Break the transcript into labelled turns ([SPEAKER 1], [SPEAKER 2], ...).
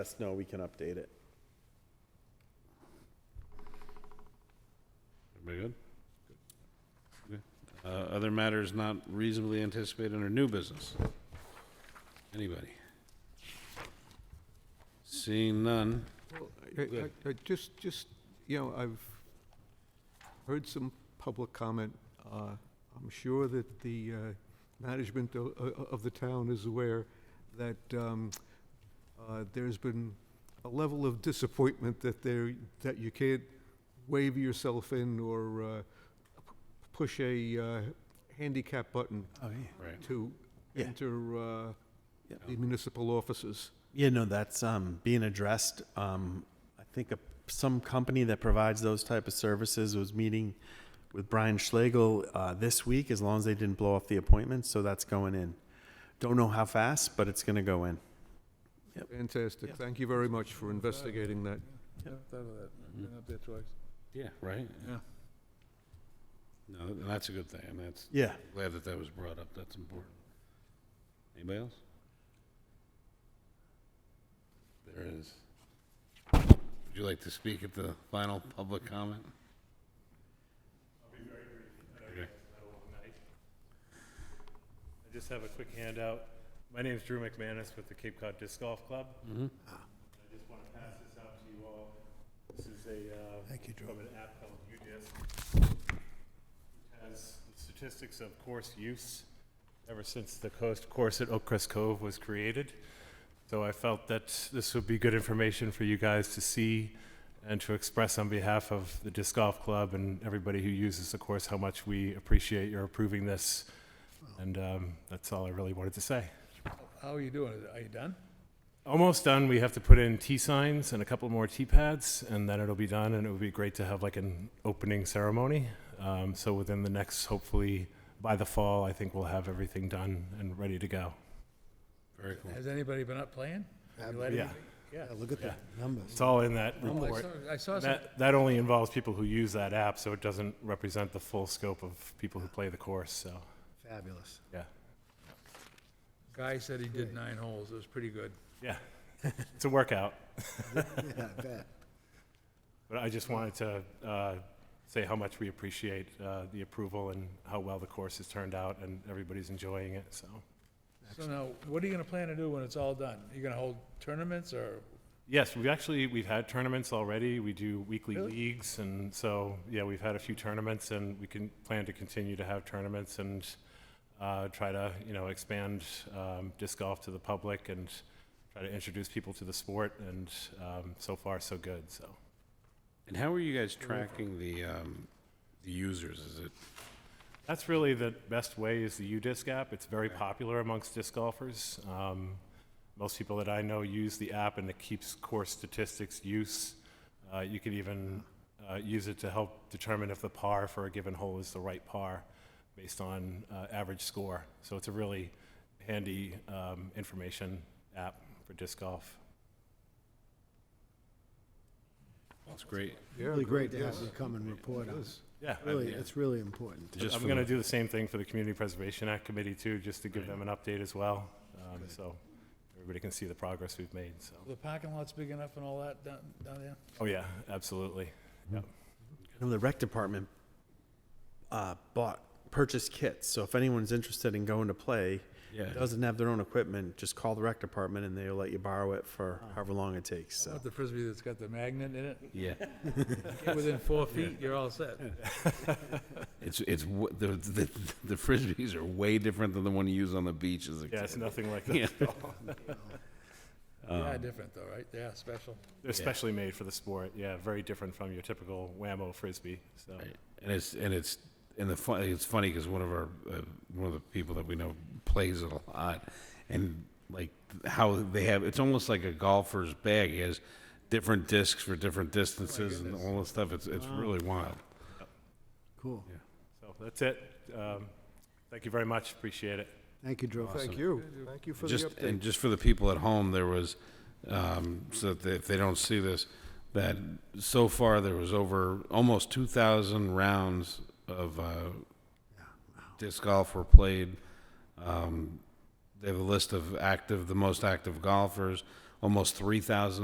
[SPEAKER 1] us know, we can update it.
[SPEAKER 2] Everybody good? Okay. Uh, Other matters not reasonably anticipated under new business? Anybody? Seeing none,
[SPEAKER 3] I-
[SPEAKER 2] Go ahead.
[SPEAKER 3] I- I Just, just, you know, I've heard some public comment. Uh, I'm sure that the uh, management o- o- of the town is aware that um, uh, there's been a level of disappointment that there, that you can't wave yourself in or uh, p- push a uh, handicap button
[SPEAKER 1] Oh, yeah.
[SPEAKER 2] right,
[SPEAKER 3] to
[SPEAKER 1] Yeah.
[SPEAKER 3] enter uh,
[SPEAKER 1] Yeah.
[SPEAKER 3] the municipal offices.
[SPEAKER 1] Yeah, no, that's um, being addressed. Um, I think a, some company that provides those type of services was meeting with Brian Schlegel uh, this week, as long as they didn't blow off the appointment, so that's going in. Don't know how fast, but it's gonna go in.
[SPEAKER 3] Fantastic.
[SPEAKER 1] Yeah.
[SPEAKER 3] Thank you very much for investigating that.
[SPEAKER 4] Never thought of that. Been up there twice.
[SPEAKER 2] yeah, right?
[SPEAKER 4] Yeah.
[SPEAKER 2] No, and that's a good thing, and that's,
[SPEAKER 1] Yeah.
[SPEAKER 2] glad that that was brought up, that's important. Anybody else? There it is. Would you like to speak at the final public comment?
[SPEAKER 5] I just have a quick handout. My name is Drew McManus with the Cape Cod Disc Golf Club.
[SPEAKER 2] Mhm.
[SPEAKER 5] I just want to pass this out to you all. This is a, uh,
[SPEAKER 4] Thank you, Drew.
[SPEAKER 5] from an app called UDisc. It has the statistics of course use ever since the coast course at Oakcrest Cove was created. So I felt that this would be good information for you guys to see and to express on behalf of the disc golf club and everybody who uses the course how much we appreciate your approving this. And um, that's all I really wanted to say.
[SPEAKER 4] How are you doing? Are you done?
[SPEAKER 5] Almost done. We have to put in T signs and a couple more T pads, and then it'll be done. And it would be great to have like an opening ceremony. Um, so within the next, hopefully by the fall, I think we'll have everything done and ready to go.
[SPEAKER 2] Very cool.
[SPEAKER 4] Has anybody been up playing? Have you let
[SPEAKER 5] Yeah,
[SPEAKER 4] anybody- Yeah.
[SPEAKER 6] Look at the numbers.
[SPEAKER 5] it's all in that
[SPEAKER 4] Oh, I
[SPEAKER 5] report.
[SPEAKER 4] saw- I saw some,
[SPEAKER 5] That, that only involves people who use that app, so it doesn't represent the full scope of people who play the course. So
[SPEAKER 6] Fabulous.
[SPEAKER 5] yeah,
[SPEAKER 4] guy said he did nine holes. It was pretty good.
[SPEAKER 5] yeah, it's a workout.
[SPEAKER 6] Yeah, I bet.
[SPEAKER 5] But I just wanted to uh, say how much we appreciate uh, the approval and how well the course has turned out, and everybody's enjoying it, so.
[SPEAKER 4] So now, what are you gonna plan to do when it's all done? You gonna hold tournaments or?
[SPEAKER 5] Yes, we've actually, we've had tournaments already. We do weekly
[SPEAKER 4] Really?
[SPEAKER 5] leagues, and so, yeah, we've had a few tournaments, and we can plan to continue to have tournaments and uh, try to, you know, expand um, disc golf to the public and try to introduce people to the sport, and um, so far, so good, so.
[SPEAKER 2] And how are you guys tracking the, um, the users? Is it
[SPEAKER 5] That's really the best way is the UDisc app. It's very popular amongst disc golfers. Um, most people that I know use the app, and it keeps course statistics use. Uh, you can even uh, use it to help determine if the par for a given hole is the right par based on uh, average score. So it's a really handy um, information app for disc golf.
[SPEAKER 2] It's great.
[SPEAKER 6] Really great to have you come and report on. it.
[SPEAKER 5] Yeah,
[SPEAKER 6] Really, it's really important.
[SPEAKER 2] Just
[SPEAKER 5] I'm
[SPEAKER 2] for
[SPEAKER 5] going to
[SPEAKER 2] the-
[SPEAKER 5] do the same thing for the Community Preservation Act Committee too, just to give them an update as well. Um, So everybody can see the progress we've made, so.
[SPEAKER 4] The parking lot's big enough and all that down, down there?
[SPEAKER 5] Oh, yeah, absolutely.
[SPEAKER 1] I know the rec department uh, bought, purchased kits, so if anyone's interested in going to play,
[SPEAKER 2] Yeah.
[SPEAKER 1] doesn't have their own equipment, just call the rec department and they'll let you borrow it for however long it takes,
[SPEAKER 4] How
[SPEAKER 1] so.
[SPEAKER 4] about the frisbee that's got the magnet in it?
[SPEAKER 2] Yeah,
[SPEAKER 4] Get Within four feet, you're all set.
[SPEAKER 2] it's, it's, w- the, the, the frisbees are way different than the one you use on the beach as a
[SPEAKER 5] Yeah, it's
[SPEAKER 2] kid.
[SPEAKER 5] nothing like
[SPEAKER 2] Yeah.
[SPEAKER 5] that.
[SPEAKER 4] They are different though, right? They are special.
[SPEAKER 5] They're specially made for the sport, yeah, very different from your typical whammo frisbee, so.
[SPEAKER 2] Right. And it's, and it's, and the fun, it's funny because one of our, uh, one of the people that we know plays it a lot. And like how they have, it's almost like a golfer's bag. He has different discs for different distances
[SPEAKER 5] Oh
[SPEAKER 2] and all this stuff. It's, it's really wild.
[SPEAKER 6] Cool.
[SPEAKER 5] So that's it. Um, Thank you very much, appreciate it.
[SPEAKER 6] Thank you, Drew.
[SPEAKER 3] Thank you. Thank you for the
[SPEAKER 2] Just,
[SPEAKER 3] update.
[SPEAKER 2] and just for the people at home, there was, um, so that they- if they don't see this, that so far there was over almost two thousand rounds of, uh, disc golf were played. Um, they have a list of active, the most active golfers, almost three thousand